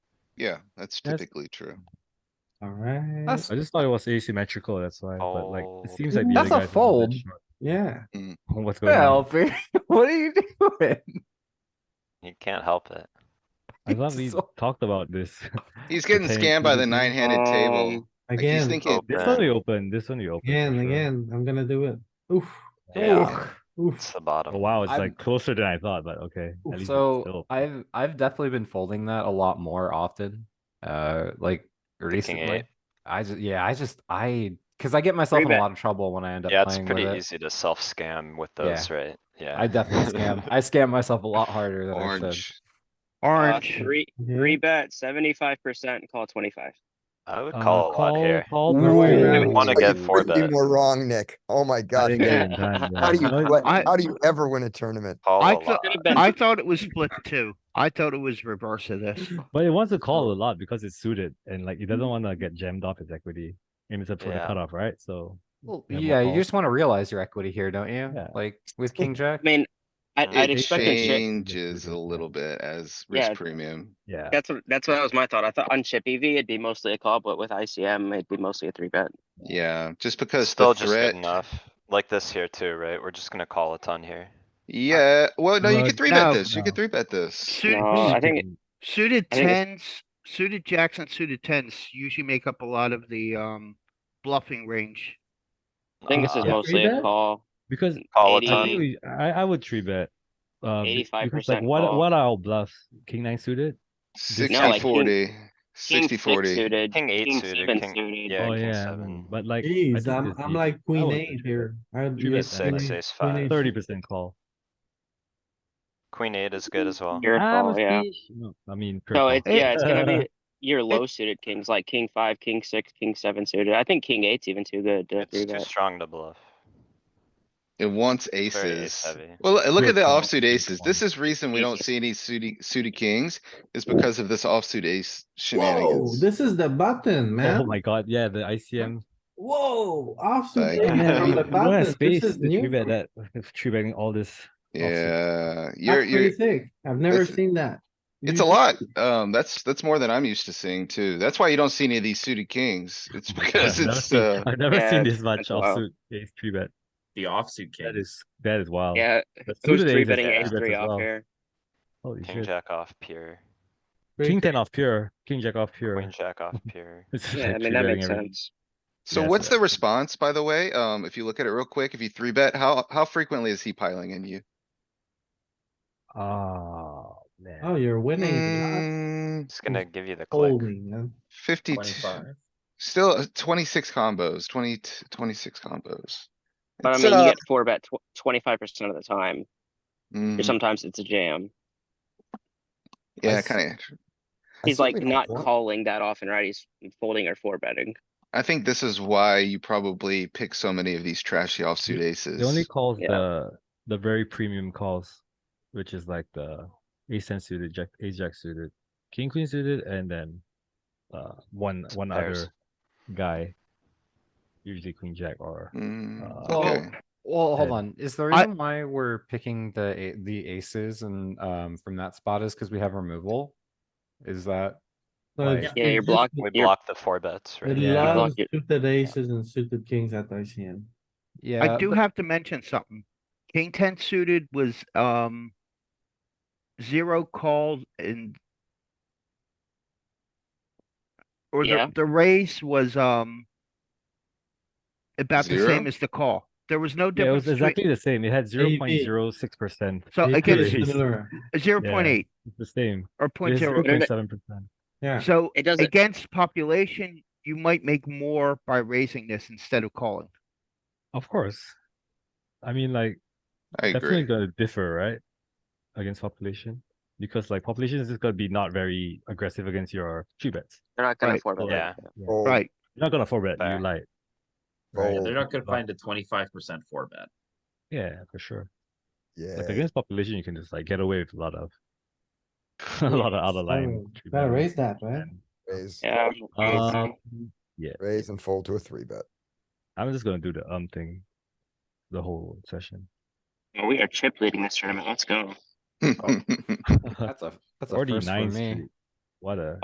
Yeah, that's That's- typically true. Alright, I just thought it was asymmetrical, that's why, but like, Oh. it seems like the That's other guys a are a fold. bit short. yeah, What's going on? Well, Barry, what are you doing? You can't help it. I thought we so- talked about this. He's getting Okay, scammed by the mhm. nine handed table. Oh, Um, Like he's again, thinking, This Open. one we open, this one we open. for again, sure. again, I'm gonna do it. Oof, Yeah, Ugh. oof. it's the Oh, bottom. wow, it's I'm- like closer than I thought, but okay. at least it's So still- I've I've definitely been folding that a lot more often. Uh, like recently. eight. I just yeah, I just I because I get myself in a bet. lot of trouble when I end up Yeah, it's playing pretty with it. easy to self-scam with Yeah. those, right? Yeah. I definitely scam. I scam myself a lot harder than I should. orange. Orange. Uh, Three, Yeah. three bet, seventy-five percent, call twenty-five. I would Uh, call a lot here. Call, Ooh. call. I We wanna get You four couldn't be bets. More wrong, Nick. Oh my I god. didn't Nick. get it in time, How do yeah. you, No, what- I- how do you ever win a tournament? Call I a lot. thought- I thought it was split two. I thought it was reverse of this. But it wants to call a lot because it's suited and like it doesn't want to get jammed off its equity. And it's up for the Mm-hmm. Yeah. cutoff, right? So Well, Yeah, more yeah, you calls. just want to realize your equity here, don't you? Yeah. Like with King Jack. I mean, I, Yeah, I'd It expect a chip. changes a little bit as Yeah. risk premium. yeah. That's what, that's what was my thought. I thought on chip EV, it'd be mostly a call, but with ICM, it'd be mostly a three bet. Yeah, just It's because the Still just threat. good enough. Like this here too, right? We're just gonna call a ton here. Yeah, well, no, you Well, could three bet no, this. You could three bet this. Suited, No, I think- suited I think it's- tens, suited jacks and suited tens usually make up a lot of the, um, bluffing range. I think this is Uh, yeah, mostly three a bet? call. Because Call a Eighty- I, Um, think ton. we- I I would three bet. Uh, be- because, like 85% what call. what are our bluffs? King nine suited? No, Sixty like king- forty, King sixty six forty. suited, King eight king suited, seven king- suited. Yeah, oh king yeah, seven. but like I Jeez, think I'm, it's I'm easy. like I queen would eight three here. I- Three yeah, bet six, queen six, eight, ace queen five. eight. Thirty percent call. Queen eight is good as well. Your Ah, call, yeah. must be- no, I mean, pure No, call. it's, yeah, it's gonna be your low suited kings, like king five, king six, king seven suited. I think king eight's even too good to three It's too bet. strong to bluff. It wants ace aces. heavy. Well, l- look Good at the call, offsuit good aces. This call. is reason we don't see any suited, suited kings is because of this offsuit ace Whoa, shenanigans. this is the button, Oh man. my god, yeah, the ICM. Whoa, Like, offsuit. Yeah, Yeah, ace man, man, on we the we don't have button. space This to is new. three bet for- that, three betting all this. Yeah, you're, That's you're, pretty sick. I've never this- seen that. It's a Usually- lot. Um, that's, that's more than I'm used to seeing too. That's why you don't see any of these suited kings. It's because I've never it's, seen- uh, I've never Yeah, seen it's- this much it's wild. offsuit ace three bet. The offsuit That king. is, that is wild. Yeah, But who's suited ace three is betting three ace bets three as off well. here? Holy King shit. jack off pure, King ten off pure, king jack off pure. queen jack off pure. It's just Yeah, I like mean, that three-betting makes everything. sense. so Yeah, what's so- the response, by the way? Um, if you look at it real quick, if you three bet, how, how frequently is he piling in you? Oh, man. Oh, you're winning. You're not Mm, It's gonna give you the click. Holding, man. fifty, Twenty-five. still uh, twenty-six combos, 20 t- 26 combos. But I It's, mean, uh, you get four bet twenty-five percent of the time, or mm, sometimes it's a jam. Yeah, That's- kinda. I He's see like what you not want. calling that often, right? He's folding or four betting. I think this is why you probably pick so many of these trashy offsuit aces. They only calls Yeah. the, the very premium calls, which is like the ace ten suited, jack, ace jack suited, king queen suited, and then uh, one, one Pairs. other guy. Usually queen jack or, Mm, Uh, okay. Well, hold Yeah. on. Is the I- reason why we're picking the a- the aces and um from that spot is because we have removal? Is that So Like- it's- Yeah, it's you're just- blocking- We You're- block the four bets, It right? Yeah. loves Block it. suited aces and suited kings at ICM. yeah? I do but- have to mention something. King ten suited was, um, zero called and or Yeah. the, the raise was, um, about the Zero? same as the call. There was no yeah, it Mm, difference was exactly between, the same. It had zero point zero six percent. So again, Pretty it's it's similar. zero point yeah. eight the same. or point zero. Zero Internet- point seven percent. Yeah, So It doesn't- against population, you might make more by raising this instead of calling. Of course. I mean, like I definitely agree. gonna differ, right? Against population, because like population is just gonna be not very aggressive against your three bets. They're not gonna Right. four bet. Yeah. that. Fold, Right. You're not gonna four bet. Fair. You like. Yeah, fold, They're not gonna But- find a twenty-five percent four bet. Yeah, for sure. Like Yeah. against population, you can just like get away with a lot of a lot of other line. Oh, three gotta betting. raise that, right? And, Raise, Yeah. Um, yeah, raise and fold to a three bet. I'm just gonna do the um thing, the whole session. Oh, We are chip leading this tournament. Let's go. That's a that's a Forty first for nine me. Street. What a